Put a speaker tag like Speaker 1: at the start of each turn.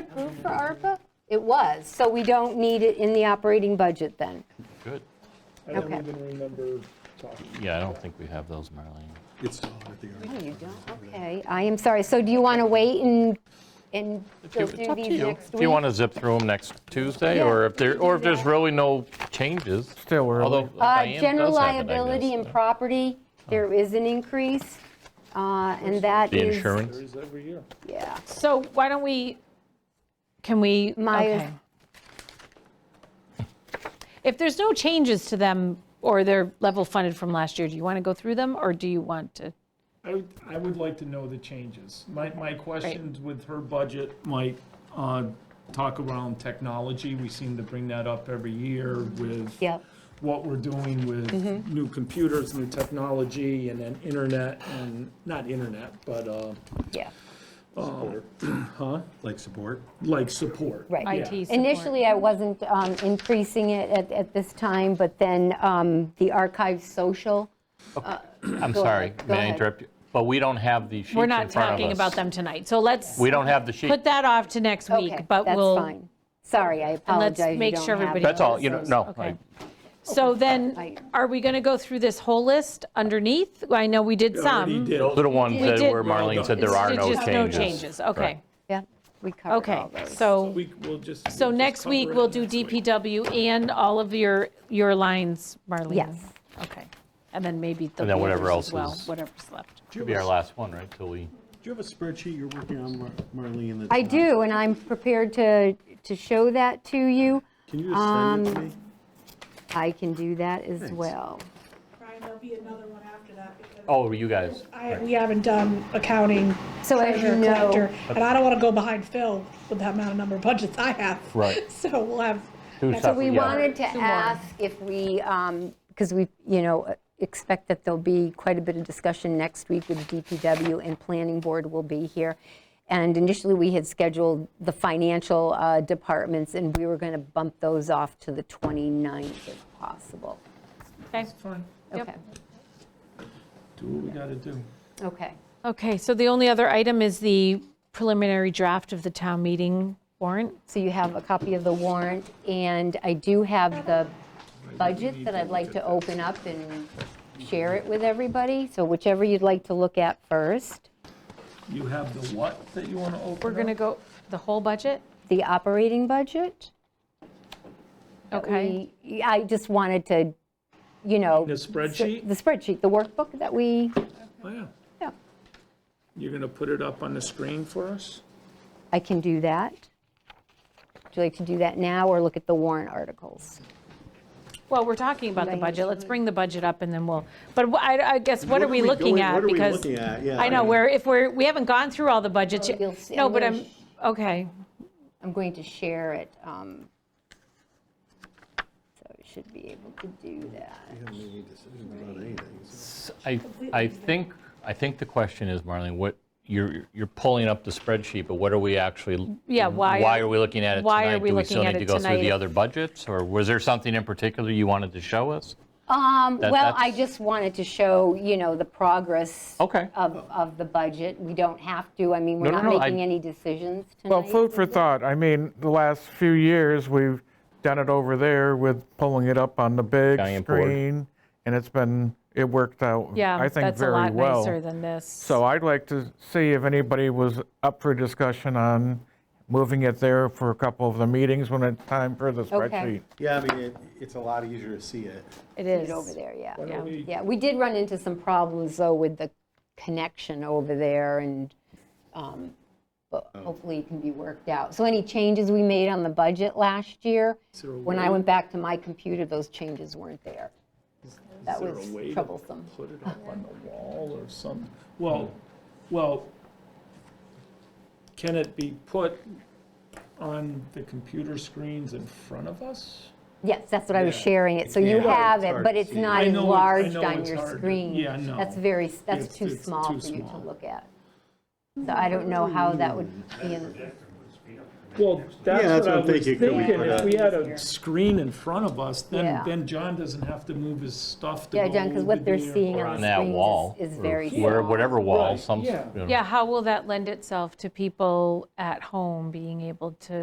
Speaker 1: approved for ARPA? It was, so we don't need it in the operating budget then.
Speaker 2: Good.
Speaker 3: I don't
Speaker 1: Okay.
Speaker 3: even remember talking.
Speaker 2: Yeah, I don't think we have those, Marlene.
Speaker 4: It's all at the
Speaker 1: No,
Speaker 4: RFP.
Speaker 1: you don't, okay. I am sorry, so do you want to wait and, and
Speaker 2: If
Speaker 1: go
Speaker 2: you- it's
Speaker 1: through
Speaker 2: up to
Speaker 1: these
Speaker 2: you.
Speaker 1: next week?
Speaker 2: If you want to zip through them next Tuesday,
Speaker 1: Yeah,
Speaker 2: or if
Speaker 1: we
Speaker 2: there,
Speaker 1: can
Speaker 2: or
Speaker 1: do
Speaker 2: if there's
Speaker 1: that.
Speaker 2: really no changes.
Speaker 5: Still early.
Speaker 2: Although
Speaker 1: Uh,
Speaker 2: Diane
Speaker 1: General
Speaker 2: does have it, I
Speaker 1: liability
Speaker 2: guess,
Speaker 1: and
Speaker 2: yeah.
Speaker 1: property, there is an increase, uh, and that
Speaker 2: The
Speaker 1: is.
Speaker 3: There
Speaker 2: insurance,
Speaker 3: is every year.
Speaker 1: Yeah.
Speaker 6: So why don't we, can we,
Speaker 1: My-
Speaker 6: okay. If there's no changes to them or they're level funded from last year, do you want to go through them or do you want to?
Speaker 3: I would, I would like to know the changes. My, my questions with her budget might uh, talk around technology. We seem to bring that up every year with
Speaker 1: Yep.
Speaker 3: what we're doing with
Speaker 6: Mm-hmm.
Speaker 3: new computers, new technology, and then internet, and, not internet, but, uh, um,
Speaker 1: yeah,
Speaker 4: Like support?
Speaker 3: like, support.
Speaker 1: right.
Speaker 6: IT
Speaker 3: Yeah.
Speaker 6: support.
Speaker 1: Initially, I wasn't um, increasing it at, at this time, but then um, the archive social,
Speaker 2: I'm
Speaker 1: Go
Speaker 2: sorry,
Speaker 1: ahead, go
Speaker 2: may I
Speaker 1: ahead.
Speaker 2: interrupt you? But we don't have the sheets in
Speaker 6: We're
Speaker 2: front of
Speaker 6: not
Speaker 2: us.
Speaker 6: talking about them tonight, so let's
Speaker 2: We don't have the sheet.
Speaker 6: put that off to next
Speaker 1: okay,
Speaker 6: week, but
Speaker 1: that's
Speaker 6: we'll.
Speaker 1: fine. Sorry, I apologize, you
Speaker 6: make
Speaker 1: don't
Speaker 6: sure
Speaker 1: have
Speaker 6: everybody
Speaker 1: it.
Speaker 2: That's all, you know, no.
Speaker 6: Okay.
Speaker 2: I-
Speaker 6: So then,
Speaker 1: I-
Speaker 6: are we going to go through this whole list underneath? I know we did
Speaker 3: Already
Speaker 6: some.
Speaker 3: did.
Speaker 2: Those are the ones
Speaker 6: We
Speaker 2: that
Speaker 6: did-
Speaker 2: where Marlene said there
Speaker 6: It's
Speaker 2: are
Speaker 6: ju-
Speaker 2: no changes.
Speaker 6: just no changes, okay,
Speaker 2: Correct.
Speaker 1: Yeah, we covered
Speaker 6: okay.
Speaker 1: all those.
Speaker 6: So,
Speaker 3: We, we'll just. we'll
Speaker 6: so
Speaker 3: just
Speaker 6: next week,
Speaker 3: cover it
Speaker 6: we'll do
Speaker 3: next week.
Speaker 6: DPW and all of your, your lines, Marlene?
Speaker 1: Yes.
Speaker 6: Okay, and then maybe there'll
Speaker 2: then
Speaker 6: be
Speaker 2: whatever
Speaker 6: others
Speaker 2: else
Speaker 6: as well,
Speaker 2: is-
Speaker 6: whatever's left.
Speaker 2: Should be our last one, right, till we,
Speaker 4: Do you have a spreadsheet you're working on, Mar- Marlene? that's
Speaker 1: I
Speaker 4: not-
Speaker 1: do, and I'm prepared to, to show that to you.
Speaker 4: Can you just
Speaker 1: Um,
Speaker 4: send it to me?
Speaker 1: I can do that as
Speaker 4: Thanks.
Speaker 1: well.
Speaker 7: Brian, there'll be another one after that because
Speaker 2: oh, you guys.
Speaker 7: I, we haven't done accounting,
Speaker 1: So as you
Speaker 7: treasurer,
Speaker 1: know-
Speaker 7: collector, and I don't want to go behind Phil with that amount of number of budgets I have.
Speaker 2: Right.
Speaker 7: So we'll have.
Speaker 2: Two
Speaker 7: next
Speaker 2: separate-
Speaker 7: week.
Speaker 1: We
Speaker 2: Yeah.
Speaker 1: wanted to ask if we, because we, you know, uh, expect that there'll be quite a bit of discussion next week with DPW and Planning Board will be here. And initially, we had scheduled the financial uh, departments, and we were going to bump those off to the 29th if possible.
Speaker 6: Okay,
Speaker 3: Fine,
Speaker 6: Yep.
Speaker 1: Okay,
Speaker 3: do what we gotta do.
Speaker 1: okay.
Speaker 6: okay, so the only other item is the preliminary draft of the town meeting warrant.
Speaker 1: So you have a copy of the warrant, and I do have the budget that I'd like to open up and share it with everybody. So whichever you'd like to look at first.
Speaker 3: You have the what that you wanna open
Speaker 6: We're going to
Speaker 3: up?
Speaker 6: go, the whole budget?
Speaker 1: the operating budget. that
Speaker 6: Okay,
Speaker 1: we- I just wanted to, you know.
Speaker 3: The spreadsheet?
Speaker 1: The spreadsheet, the workbook that we,
Speaker 3: Oh, yeah.
Speaker 1: yeah,
Speaker 3: You're gonna put it up on the screen for us?
Speaker 1: I can do that. Would you like to do that now or look at the warrant articles?
Speaker 6: well, we're talking about the
Speaker 1: Right.
Speaker 6: budget, let's bring the budget up and then we'll, but wh- I, I guess, what are we looking
Speaker 4: going-
Speaker 6: at?
Speaker 4: What are we
Speaker 6: Because
Speaker 4: looking at? Yeah,
Speaker 6: I know,
Speaker 4: mean,
Speaker 6: we're, if we're, we haven't gone through all the budgets yet.
Speaker 1: You'll see-
Speaker 6: No,
Speaker 1: I'm
Speaker 6: but
Speaker 1: gonna
Speaker 6: I'm,
Speaker 1: sh-
Speaker 6: okay,
Speaker 1: I'm going to share it. um, So I should be able to do that.
Speaker 4: we haven't made any decisions about anything, so-
Speaker 2: I, I think, I think the question is, Marlene, what, you're, you're pulling up the spreadsheet, but what are we actually?
Speaker 6: Yeah, why
Speaker 2: Why
Speaker 6: are-
Speaker 2: are we looking at it tonight?
Speaker 6: why are we
Speaker 2: Do
Speaker 6: looking
Speaker 2: we
Speaker 6: at
Speaker 2: still need
Speaker 6: it
Speaker 2: to go through
Speaker 6: tonight
Speaker 2: the
Speaker 6: if-
Speaker 2: other budgets, or was there something in particular you wanted to show us?
Speaker 1: Um,
Speaker 2: That-
Speaker 1: Well, I
Speaker 2: that's-
Speaker 1: just wanted to show, you know, the progress.
Speaker 2: Okay.
Speaker 1: Of, of the budget. We don't have to, I mean, we're
Speaker 2: No,
Speaker 1: not
Speaker 2: no, no, I-
Speaker 1: making any decisions tonight.
Speaker 5: Well, food for thought. I mean, the last few years, we've done it over there with pulling it up on the big
Speaker 2: Giant board.
Speaker 5: screen, and it's been, it worked out,
Speaker 6: yeah,
Speaker 5: I think,
Speaker 6: that's a
Speaker 5: very
Speaker 6: lot
Speaker 5: well.
Speaker 6: nicer than this.
Speaker 5: So I'd like to see if anybody was up for discussion on moving it there for a couple of the meetings when it's time for the
Speaker 1: Okay.
Speaker 5: spreadsheet.
Speaker 4: Yeah, I mean, it, it's a lot easier to see it.
Speaker 6: It
Speaker 1: Get
Speaker 6: is.
Speaker 1: over there, yeah.
Speaker 3: don't we-
Speaker 1: Yeah, we did run into some problems, though, with the connection over there, and, um, but
Speaker 3: Oh.
Speaker 1: hopefully it can be worked out. So any changes we made on the budget last year,
Speaker 3: there a
Speaker 1: when I went back to my computer, those changes weren't there. That
Speaker 3: there
Speaker 1: was
Speaker 3: a way to
Speaker 1: troublesome.
Speaker 3: Put it up on the wall or some, well, well, can it be put on the computer screens in front of us?
Speaker 1: Yes, that's what I was
Speaker 3: Yeah.
Speaker 1: sharing it, so you
Speaker 4: Yeah.
Speaker 1: have
Speaker 4: It's
Speaker 1: it,
Speaker 4: hard
Speaker 1: but
Speaker 4: to
Speaker 1: it's
Speaker 4: see.
Speaker 1: not
Speaker 3: I know it- I
Speaker 1: enlarged
Speaker 3: know
Speaker 1: on
Speaker 3: it's
Speaker 1: your
Speaker 3: hard to-
Speaker 1: screen.
Speaker 3: yeah, no.
Speaker 1: That's very, that's
Speaker 3: It's-
Speaker 1: too
Speaker 3: it's
Speaker 1: small
Speaker 3: too
Speaker 1: for you to
Speaker 3: small.
Speaker 1: look at. So I don't know how that would be, in-
Speaker 3: Well, that's
Speaker 4: that's
Speaker 3: what I
Speaker 4: what I'm
Speaker 3: was
Speaker 4: thinking. Could we
Speaker 3: thinking,
Speaker 4: put
Speaker 3: if
Speaker 4: a-
Speaker 3: we had a screen in front of us, then,
Speaker 1: Yeah.
Speaker 3: then John doesn't have to move his stuff to go
Speaker 1: Yeah,
Speaker 3: over
Speaker 1: John, because what they're
Speaker 3: there.
Speaker 1: seeing
Speaker 2: on
Speaker 1: on
Speaker 2: that
Speaker 1: the
Speaker 2: wall.
Speaker 1: screen is- is
Speaker 2: or
Speaker 1: very
Speaker 2: where-
Speaker 1: small.
Speaker 2: Whatever wall,
Speaker 3: Right,
Speaker 2: some,
Speaker 3: yeah.
Speaker 2: you know.
Speaker 6: Yeah, how will that lend itself to people at home being able to